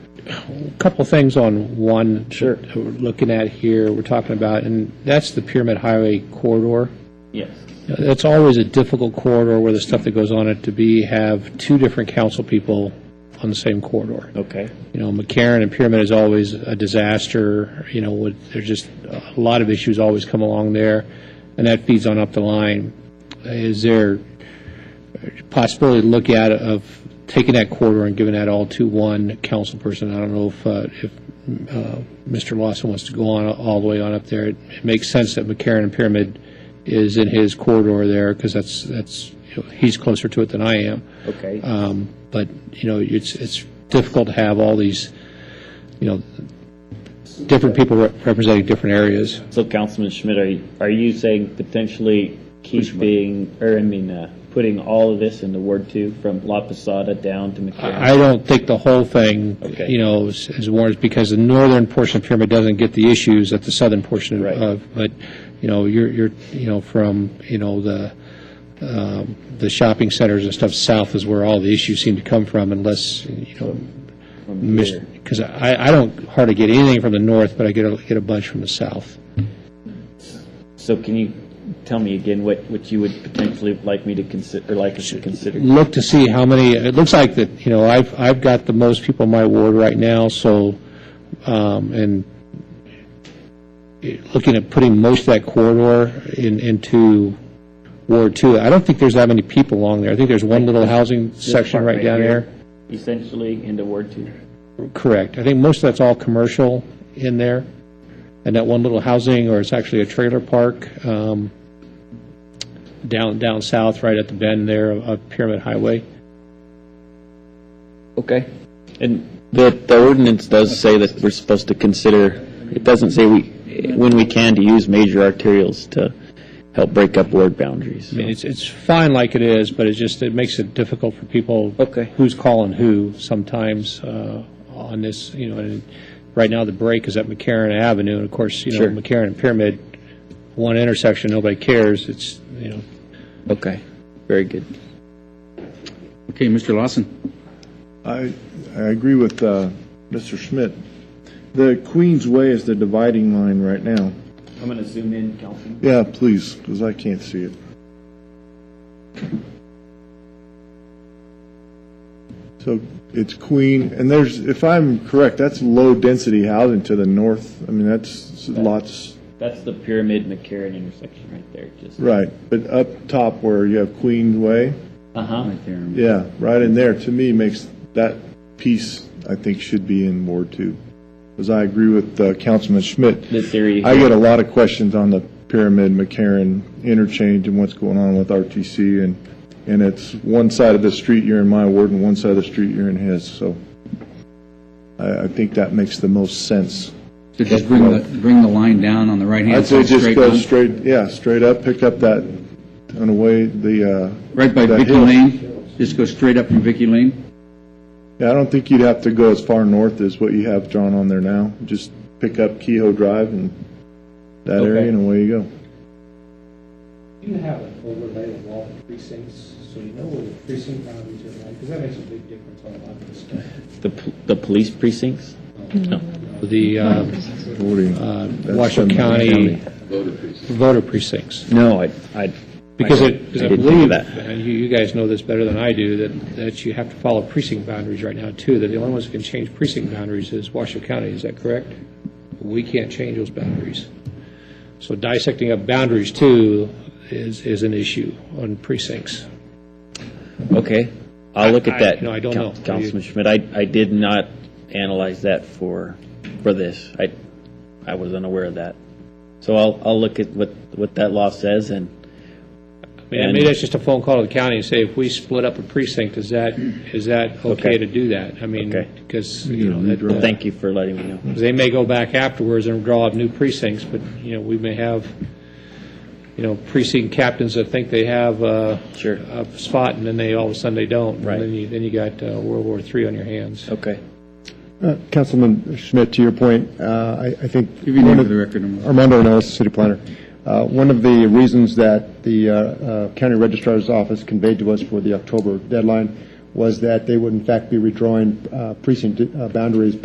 couple things on one. Sure. that We're looking at here, we're talking about, and that's the Pyramid Highway corridor. Yes. That's always a difficult corridor where the stuff that goes on it to be, have two different council people on the same corridor. Okay. You know, McCarran and Pyramid is always a disaster, you know, with, there's just a lot of issues always come along there, and that feeds on up the line. Is there a possibility to look at of taking that corridor and giving that all to one council person? I don't know if, uh, if uh, Mr. Lawson wants to go on all the way on up there. It it makes sense that McCarran and Pyramid is in his corridor there, because that's, that's, you know, he's closer to it than I am. Okay. Uh, Um, But, you know, it's, it's difficult to have all these, you know, different people rep- representing different areas. So Councilman Schmidt, are you, are you saying potentially keeping, or I mean, uh, putting all of this into Ward Two from La Posada down to Uh, McCarran? I don't think the whole thing, Okay. you know, is is warranted, because the northern portion of Pyramid doesn't get the issues that the southern portion Right. of, but, you know, you're, you're, you know, from, you know, the, um, the shopping centers and stuff south is where all the issues seem to come from, unless, you know, From here? because I, I don't hardly get anything from the north, but I get a, get a bunch from the south. So can you tell me again what, what you would potentially like me to consider, or like us to consider? look to see how many, it looks like that, you know, I've, I've got the most people in my ward right now, so, um, and it- looking at putting most of that corridor in, into Ward Two, I don't think there's that many people along there. I think there's one little housing section part right right down here. there. Essentially into Ward Two? Correct. I think most of that's all commercial in there, and that one little housing, or it's actually a trailer park, um, down, down south, right at the bend there of- of Pyramid Highway. Okay. And, The, the ordinance does say that we're supposed to consider, it doesn't say we, when we can to use major arterials to help break up ward boundaries. I mean, It's, it's fine like it is, but it just, it makes it difficult for people. Okay. Who's calling who sometimes uh, on this, you know, and right now the break is at McCarran Avenue, and of course, you know, Sure. McCarran and Pyramid, one intersection, nobody cares, it's, you know, Okay, very good. Okay, Mr. Lawson. I, I agree with uh, Mr. Schmidt. The Queen's Way is the dividing line right now. I'm going to zoom in, Councilman. Yeah, please, because I can't see it. So it's Queen, and there's, if I'm correct, that's low-density housing to the north. I mean, that's lots, That's the Pyramid McCarran intersection right there, just. right. But up top where you have Queen's Way, Uh-huh. yeah, right in there, to me, makes that piece, I think, should be in Ward Two. Because I agree with uh, Councilman Schmidt. This area. I get a lot of questions on the Pyramid McCarran interchange and what's going on with RTC, and, and it's one side of the street you're in my ward and one side of the street you're in his, so I, I think that makes the most sense. So just bring the, bring the line down on the I'd right-hand say side, just straight go down, straight, yeah, straight up, pick up that, on the way, the, uh. right by that Vicky hill. Lane. Just go straight up from Vicky Lane. Yeah, I don't think you'd have to go as far north as what you have drawn on there now, just pick up Kehoe Drive and that area, and away you go. You have an overlay of all precincts, so you know where the precinct boundaries are, because that makes a big difference on a lot of this stuff. The, pol- the police precincts? the um, Voting. uh, That's Washoe from- County voter precincts. No, I, I. Because I it, because I didn't think of believe, that. and you, you guys know this better than I do, that, that you have to follow precinct boundaries right now, too, that the only ones that can change precinct boundaries is Washoe County, is that correct? We can't change those boundaries. So dissecting up boundaries, too, is, is an issue on precincts. Okay, I'll look at I- that. no, I don't Coun- know. Councilman Schmidt, I, I did not analyze that for, for this. I, I was unaware of that. So I'll, I'll look at what, what that law says and, I mean, maybe that's just a phone call to the county and say, if we split up a precinct, is that, is that okay Okay. to do that? I mean, Okay. because, you know, that, uh, thank you for letting me know. They may go back afterwards and draw up new precincts, but, you know, we may have, you know, precinct captains that think they have uh, Sure. a spot, and then they, all of a sudden, they don't. Right. And then you, then you got uh, World War III on your hands. Okay. Uh, Councilman Schmidt, to your point, uh, I I think. Give your name for the record. and- Armando Arnones, city planner. Uh, One of the reasons that the uh, uh, county registrar's office conveyed to us for the October deadline was that they would in fact be redrawing uh, precinct uh, boundaries